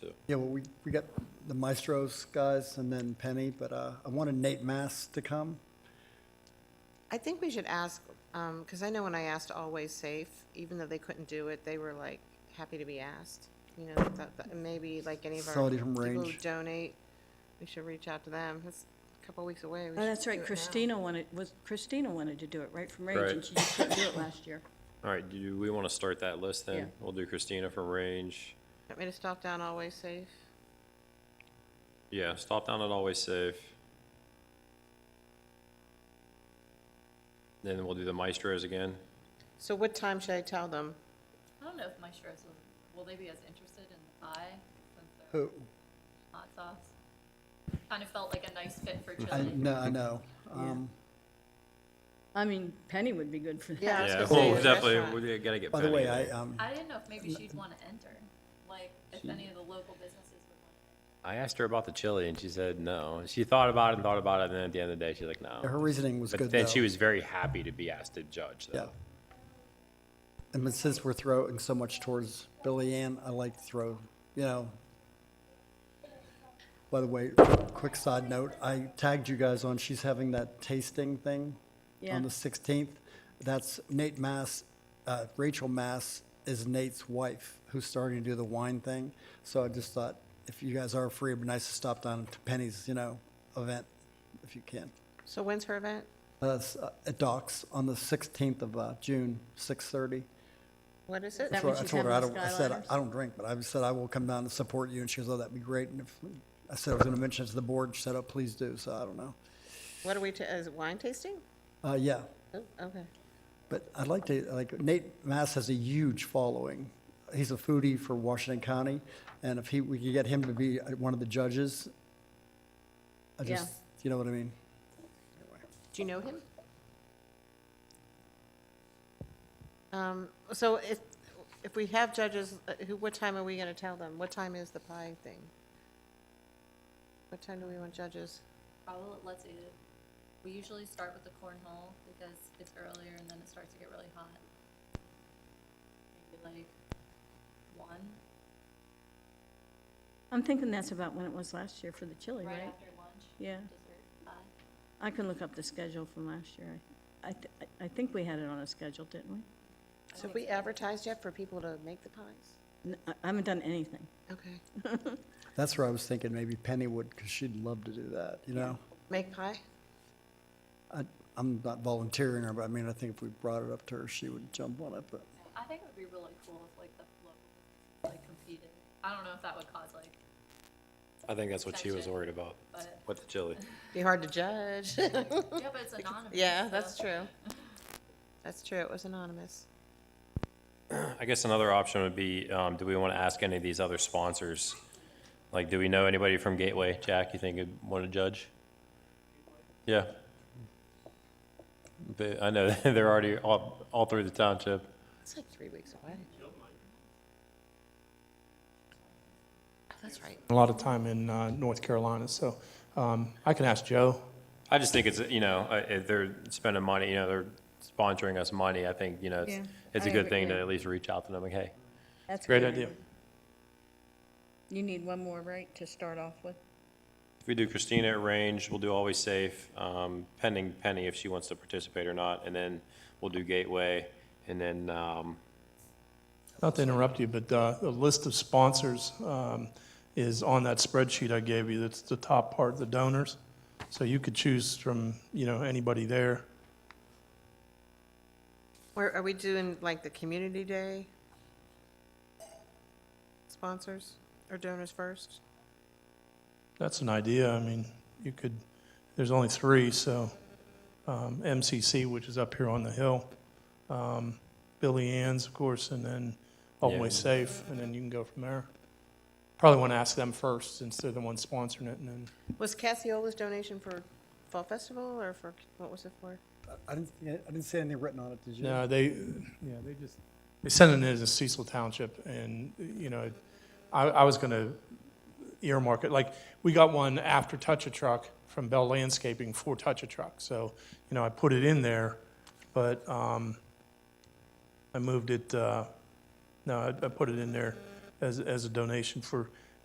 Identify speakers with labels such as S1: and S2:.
S1: Yeah, well, we, we got the Maestros guys and then Penny, but uh, I wanted Nate Mass to come.
S2: I think we should ask, because I know when I asked Always Safe, even though they couldn't do it, they were like happy to be asked. You know, that, that- maybe like any of our
S1: Somebody from
S2: people who
S1: Range.
S2: donate, we should reach out to them. It's a couple weeks away. we
S3: Oh,
S2: should
S3: that's
S2: do
S3: right,
S2: it now.
S3: Christina wanted, was, Christina wanted to do it right from range,
S4: Right.
S3: and she just couldn't do it last year.
S4: All right, do we want to start that list
S3: Yeah.
S4: then? We'll do Christina from Range.
S2: Want me to stop down Always Safe?
S4: Yeah, stop down at Always Safe. Then we'll do the Maestros again.
S2: So what time should I tell them?
S5: I don't know if Maestros will, will they be as interested in the pie since they're
S1: Who,
S5: hot sauce? Kind of felt like a nice fit for
S1: I,
S5: chili.
S1: no, I know. Um,
S3: I mean, Penny would be good for that.
S2: Yeah, I was
S4: Yeah,
S2: gonna say
S4: well,
S2: the
S4: definitely,
S2: restaurant.
S4: we gotta get
S1: By the
S4: Penny
S1: way,
S4: in
S1: I,
S4: there.
S1: um,
S5: I didn't know if maybe she'd want to enter, like if any of the local businesses would want to.
S4: I asked her about the chili and she said no. She thought about it and thought about it, and then at the end of the day, she's like,
S1: her
S4: no.
S1: reasoning was
S4: But
S1: good,
S4: then
S1: though.
S4: she was very happy to be asked to judge,
S1: Yeah.
S4: though.
S1: And but since we're throwing so much towards Billy Ann, I like to throw, you know. By the way, quick side note, I tagged you guys on, she's having that tasting thing
S3: Yeah.
S1: on the 16th. That's Nate Mass, uh, Rachel Mass is Nate's wife, who's starting to do the wine thing. So I just thought, if you guys are free, it'd be nice to stop down to Penny's, you know, event, if you can.
S2: So when's her event?
S1: Uh, s- uh, At Docks on the 16th of uh, June, 6:30.
S2: What is it?
S3: That
S1: So
S3: when
S1: I
S3: she's
S1: told her I
S3: having
S1: don't.
S3: the
S1: I said,
S3: Skyliners?
S1: I don't drink, but I said I will come down and support you, and she goes, oh, that'd be great. And if, I said I was gonna mention it to the board, and she said, oh, please do, so I don't know.
S2: What are we, ta- is it wine tasting?
S1: Uh, yeah,
S2: Oh, okay.
S1: but I'd like to, like, Nate Mass has a huge following. He's a foodie for Washington County, and if he, we could get him to be uh, one of the judges, I
S3: Yeah.
S1: just, you know what I mean?
S2: Do you know him? Um, so if, if we have judges, uh, who, what time are we gonna tell them? What time is the pie thing? What time do we want judges?
S5: Probably, let's see, we usually start with the cornhole because it's earlier and then it starts to get really hot. Maybe like one,
S3: I'm thinking that's about when it was last year for the chili,
S5: right
S3: right?
S5: after lunch,
S3: Yeah,
S5: dessert pie.
S3: I can look up the schedule from last year. I, I, th- I think we had it on a schedule, didn't we?
S2: So have we advertised yet for people to make the pies?
S3: N- I I haven't done anything.
S2: Okay.
S1: That's where I was thinking, maybe Penny would, because she'd love to do that, you know?
S2: Make pie?
S1: I, I'm not volunteering her, but I mean, I think if we brought it up to her, she would jump on it, but.
S5: I think it would be really cool if like the local businesses like competed. I don't know if that would cause like,
S4: I think that's what she was
S5: Gotcha.
S4: worried about,
S5: but
S4: with the chili.
S2: Be hard to judge.
S5: yeah, but it's anonymous.
S2: Yeah,
S5: so-
S2: that's true. That's true, it was anonymous.
S4: I guess another option would be, um, do we want to ask any of these other sponsors? Like, do we know anybody from Gateway? Jack, you think would want to judge? Yeah. They, I know, they're already all, all through the township.
S2: It's like three weeks away. Oh, That's right.
S6: a lot of time in uh, North Carolina, so um, I can ask Joe.
S4: I just think it's, you know, uh, if they're spending money, you know, they're sponsoring us money, I think, you know, it's,
S3: Yeah,
S4: it's a
S3: I
S4: good
S3: agree,
S4: thing to
S3: yeah.
S4: at least reach out to them, like, hey,
S3: That's
S6: Great idea.
S3: You need one more, right, to start off with?
S4: If we do Christina at range, we'll do Always Safe, um, pending Penny if she wants to participate or not, and then we'll do Gateway, and then, um,
S6: Not to interrupt you, but uh, the list of sponsors um, is on that spreadsheet I gave you. That's the top part, the donors. So you could choose from, you know, anybody there.
S2: Or are we doing like the community day? Sponsors or donors first?
S6: That's an idea. I mean, you could, there's only three, so um, MCC, which is up here on the hill, um, Billy Ann's, of course, and then Always
S4: Yeah.
S6: Safe, and then you can go from there. Probably want to ask them first, since they're the ones sponsoring it, and then
S2: Was Cassiola's donation for Fall Festival or for, what was it for?
S1: I- I didn't, I didn't see anything written on it, did you?
S6: No, they, yeah, they just, they sent it in as Cecil Township, and, you know, I, I was gonna earmark it, like, we got one after Touch a Truck from Bell Landscaping for Touch a Truck, so, you know, I put it in there, but, um, I moved it, uh, no, I, I put it in there as, as a donation for